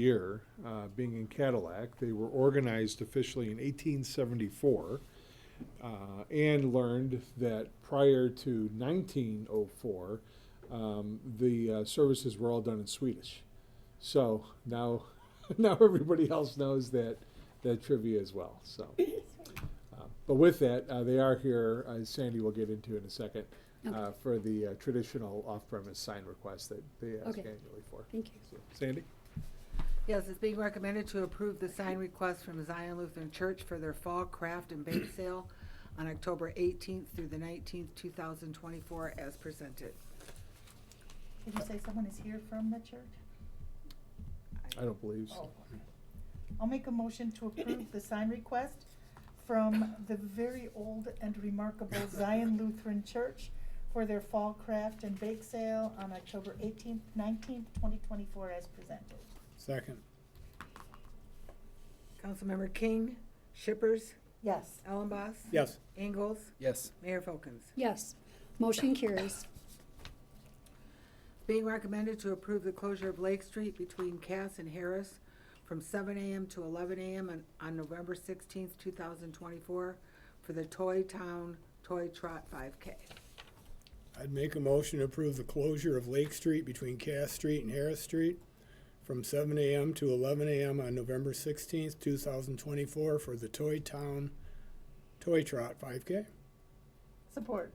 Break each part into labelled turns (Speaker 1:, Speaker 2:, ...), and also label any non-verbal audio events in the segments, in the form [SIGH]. Speaker 1: year, uh, being in Cadillac. They were organized officially in 1874 uh, and learned that prior to 1904, um, the uh, services were all done in Swedish. So now, [LAUGHS] now everybody else knows that that trivia as well. So, uh, but with that, uh, they are here. Uh, Sandy will get into in a second. Uh, for the uh, traditional off-premise sign request that they ask
Speaker 2: Okay.
Speaker 1: annually for.
Speaker 2: Thank you.
Speaker 1: So, Sandy?
Speaker 3: Yes, it's being recommended to approve the sign request from Zion Lutheran Church for their fall craft and bake sale on October 18th through the 19th, 2024, as presented.
Speaker 4: Did you say someone is here from the church?
Speaker 1: I don't believe
Speaker 4: Oh,
Speaker 1: so.
Speaker 4: okay. I'll make a motion to approve the sign request from the very old and remarkable Zion Lutheran Church for their fall craft and bake sale on October eighteenth, nineteenth, twenty twenty-four as presented.
Speaker 5: Second,
Speaker 3: Councilmember King, Shippers,
Speaker 4: Yes.
Speaker 3: Ellenboss.
Speaker 5: yes.
Speaker 3: Ingalls,
Speaker 6: Yes,
Speaker 3: Mayor Folkins.
Speaker 2: Yes, motion carries.
Speaker 3: Being recommended to approve the closure of Lake Street between Cass and Harris from seven AM to eleven AM on, on November sixteenth, two thousand twenty-four for the Toy Town Toy Trot five K.
Speaker 5: I'd make a motion to approve the closure of Lake Street between Cass Street and Harris Street from seven AM to eleven AM on November sixteenth, two thousand twenty-four for the Toy Town Toy Trot five K.
Speaker 4: Support.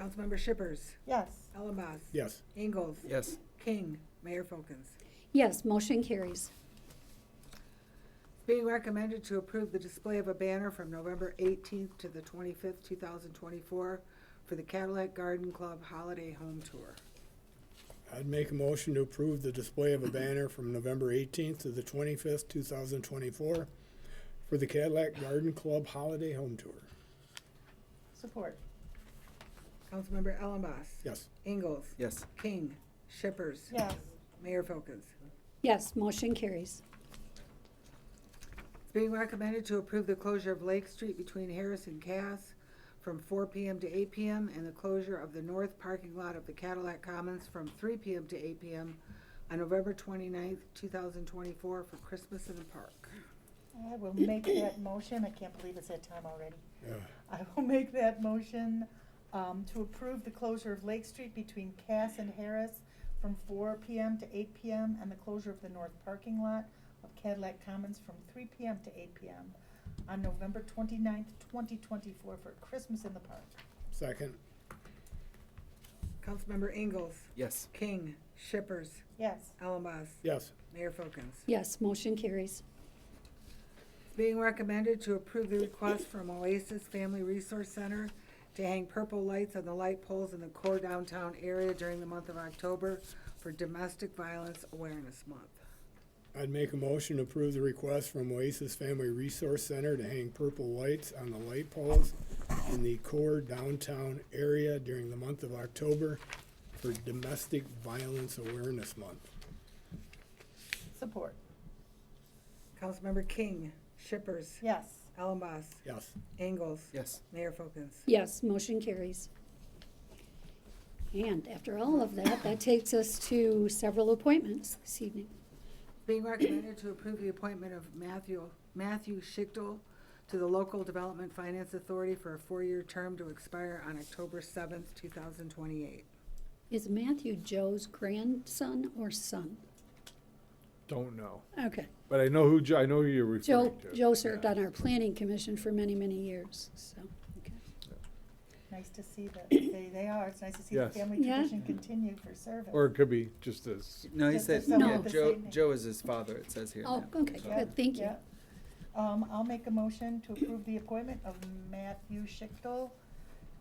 Speaker 3: Councilmember Shippers,
Speaker 4: Yes.
Speaker 3: Ellenboss.
Speaker 5: Yes,
Speaker 3: Ingalls.
Speaker 6: yes,
Speaker 3: King, Mayor Folkins.
Speaker 2: Yes, motion carries.
Speaker 3: Being recommended to approve the display of a banner from November eighteenth to the twenty-fifth, two thousand twenty-four for the Cadillac Garden Club Holiday Home Tour.
Speaker 5: I'd make a motion to approve the display of a banner from November eighteenth to the twenty-fifth, two thousand twenty-four for the Cadillac Garden Club Holiday Home Tour.
Speaker 4: Support.
Speaker 3: Councilmember Ellenboss.
Speaker 5: Yes,
Speaker 3: Ingalls.
Speaker 6: yes,
Speaker 3: King, Shippers.
Speaker 4: Yes.
Speaker 3: Mayor Folkins.
Speaker 2: Yes, motion carries.
Speaker 3: It's being recommended to approve the closure of Lake Street between Harris and Cass from four PM to eight PM and the closure of the north parking lot of the Cadillac Commons from three PM to eight PM on November twenty-ninth, two thousand twenty-four for Christmas in the Park.
Speaker 4: I will make that motion. I can't believe it's that time already.
Speaker 5: yeah,
Speaker 4: I will make that motion um, to approve the closure of Lake Street between Cass and Harris from four PM to eight PM and the closure of the north parking lot of Cadillac Commons from three PM to eight PM on November twenty-ninth, twenty twenty-four for Christmas in the Park.
Speaker 5: second,
Speaker 3: Councilmember Ingalls,
Speaker 6: yes,
Speaker 3: King, Shippers,
Speaker 4: Yes,
Speaker 3: Allenboss,
Speaker 5: yes,
Speaker 3: Mayor Folkins.
Speaker 2: Yes, motion carries.
Speaker 3: It's being recommended to approve the request from Oasis Family Resource Center to hang purple lights on the light poles in the core downtown area during the month of October for Domestic Violence Awareness Month.
Speaker 5: I'd make a motion to approve the request from Oasis Family Resource Center to hang purple lights on the light poles in the core downtown area during the month of October for Domestic Violence Awareness Month.
Speaker 4: support.
Speaker 3: Councilmember King, Shippers,
Speaker 4: Yes,
Speaker 3: Allenboss,
Speaker 5: Yes,
Speaker 3: Ingalls,
Speaker 6: yes,
Speaker 3: Mayor Folkins.
Speaker 2: Yes, motion carries. And after all of that, that takes us to several appointments this evening.
Speaker 3: Being recommended to approve the appointment of Matthew, Matthew Schichtel to the Local Development Finance Authority for a four-year term to expire on October seventh, two thousand twenty-eight.
Speaker 2: Is Matthew Joe's grandson or son?
Speaker 1: Don't know.
Speaker 2: Okay,
Speaker 1: But I know who, Jo- I know who you're
Speaker 2: Joe,
Speaker 1: referring to.
Speaker 2: Joe served on our planning commission for many, many years, so, okay.
Speaker 4: nice to see that they, they are. It's nice to see the
Speaker 1: Yes.
Speaker 4: family
Speaker 2: Yeah.
Speaker 4: tradition continue for service.
Speaker 1: Or it could be just as,
Speaker 6: no, he
Speaker 4: Does
Speaker 6: said,
Speaker 4: this
Speaker 2: sound
Speaker 6: yeah,
Speaker 2: like
Speaker 4: the
Speaker 6: Joe,
Speaker 4: same name?
Speaker 6: Joe is his father, it says here.
Speaker 2: Oh,
Speaker 6: yeah.
Speaker 2: okay,
Speaker 6: So-
Speaker 2: good, thank you.
Speaker 4: Yeah. Um, I'll make a motion to approve the appointment of Matthew Schichtel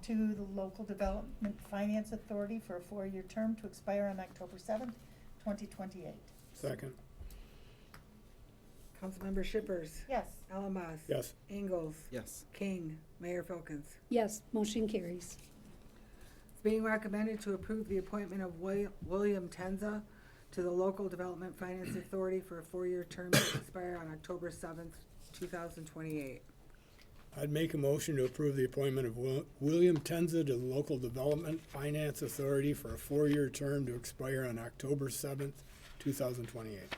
Speaker 4: to the Local Development Finance Authority for a four-year term to expire on October seventh, twenty twenty-eight.
Speaker 5: second,
Speaker 3: Councilmember Shippers,
Speaker 4: Yes,
Speaker 3: Allenboss.
Speaker 5: yes,
Speaker 3: Ingalls.
Speaker 6: Yes,
Speaker 3: King, Mayor Folkins.
Speaker 2: Yes, motion carries.
Speaker 3: It's being recommended to approve the appointment of William, William Tenza to the Local Development Finance Authority for a four-year term to expire on October seventh, two thousand twenty-eight.
Speaker 5: I'd make a motion to approve the appointment of Wil- William Tenza to the Local Development Finance Authority for a four-year term to expire on October seventh, two thousand twenty-eight.